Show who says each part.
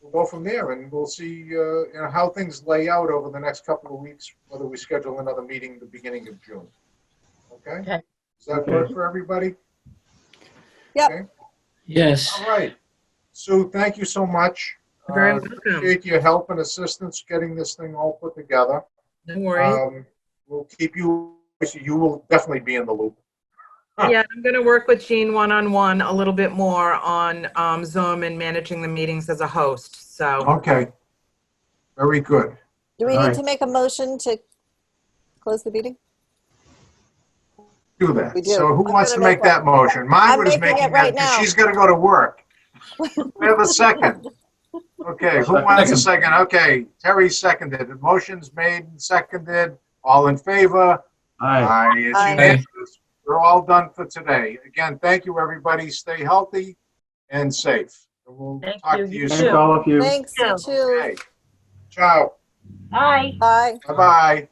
Speaker 1: we'll go from there and we'll see, uh, you know, how things lay out over the next couple of weeks, whether we schedule another meeting the beginning of June. Okay?
Speaker 2: Okay.
Speaker 1: Does that work for everybody?
Speaker 3: Yes,
Speaker 1: All right. Sue, thank you so much.
Speaker 2: You're Very
Speaker 1: Uh,
Speaker 2: welcome.
Speaker 1: Appreciate your help and assistance getting this thing all put together.
Speaker 2: No worries.
Speaker 1: Um, We'll keep you, you will definitely be in the loop.
Speaker 2: Yeah, I'm going to work with Jean one-on-one a little bit more on um, Zoom and managing the meetings as a host. So
Speaker 1: Okay. Very good.
Speaker 4: Do we
Speaker 1: Right.
Speaker 4: need to make a motion to close the meeting?
Speaker 1: Do that.
Speaker 4: We do.
Speaker 1: So who
Speaker 4: I'm
Speaker 1: wants to
Speaker 4: gonna
Speaker 1: make
Speaker 4: make
Speaker 1: that motion? Mine
Speaker 4: I'm
Speaker 1: was
Speaker 4: making it
Speaker 1: making that,
Speaker 4: right
Speaker 1: because
Speaker 4: now.
Speaker 1: she's gonna go to work. We have a second. Okay, who wants a second? Okay, Terry seconded. The motion's made and seconded. All in favor?
Speaker 5: Aye.
Speaker 1: Aye. It's
Speaker 4: Aye.
Speaker 1: unanimous. We're all done for today. Again, thank you, everybody. Stay healthy and safe. And We'll
Speaker 6: Thank
Speaker 1: talk
Speaker 6: you.
Speaker 1: to
Speaker 6: You
Speaker 1: you
Speaker 6: too.
Speaker 5: Thank
Speaker 1: soon.
Speaker 5: all of you.
Speaker 4: Thanks, you
Speaker 6: Yeah.
Speaker 4: too.
Speaker 1: Okay. Ciao.
Speaker 6: Bye.
Speaker 4: Bye.
Speaker 1: Bye-bye.